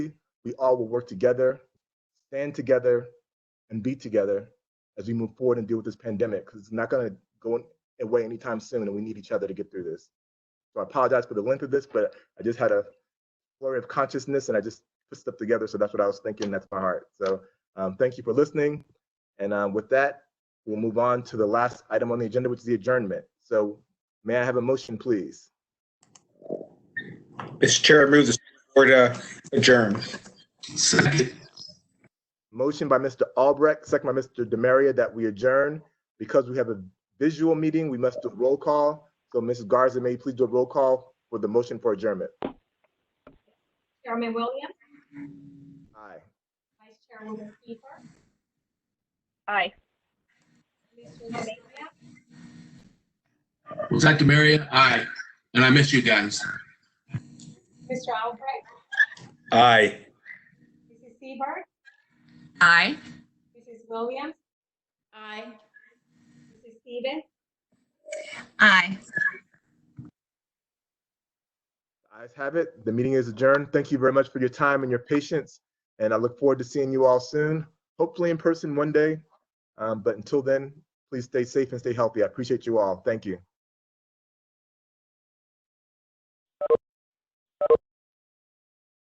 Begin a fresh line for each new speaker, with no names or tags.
we all will work together, stand together, and be together as we move forward and deal with this pandemic because it's not going to go away anytime soon, and we need each other to get through this. So I apologize for the length of this, but I just had a flurry of consciousness and I just put stuff together. So that's what I was thinking. That's my heart. So um, thank you for listening. And um, with that, we'll move on to the last item on the agenda, which is the adjournment. So may I have a motion, please?
Mr. Chair, I move the board uh, adjourn.
Second.
Motion by Mr. Albrecht, second by Mr. Demaria that we adjourn. Because we have a visual meeting, we must do a roll call. So Mrs. Garza, may you please do a roll call for the motion for adjournment?
Chairman Williams,
Aye.
Vice Chairwoman Kiefer,
Aye.
Mr. Demaria,
Was that Demaria? Aye. And I miss you guys.
Mr. Albrecht,
Aye.
Mrs. Seabird,
Aye.
Mrs. Williams. Aye. Mrs. Stevens,
Aye.
Eyes have it. The meeting is adjourned. Thank you very much for your time and your patience. And I look forward to seeing you all soon, hopefully in person one day. Um, but until then, please stay safe and stay healthy. I appreciate you all. Thank you.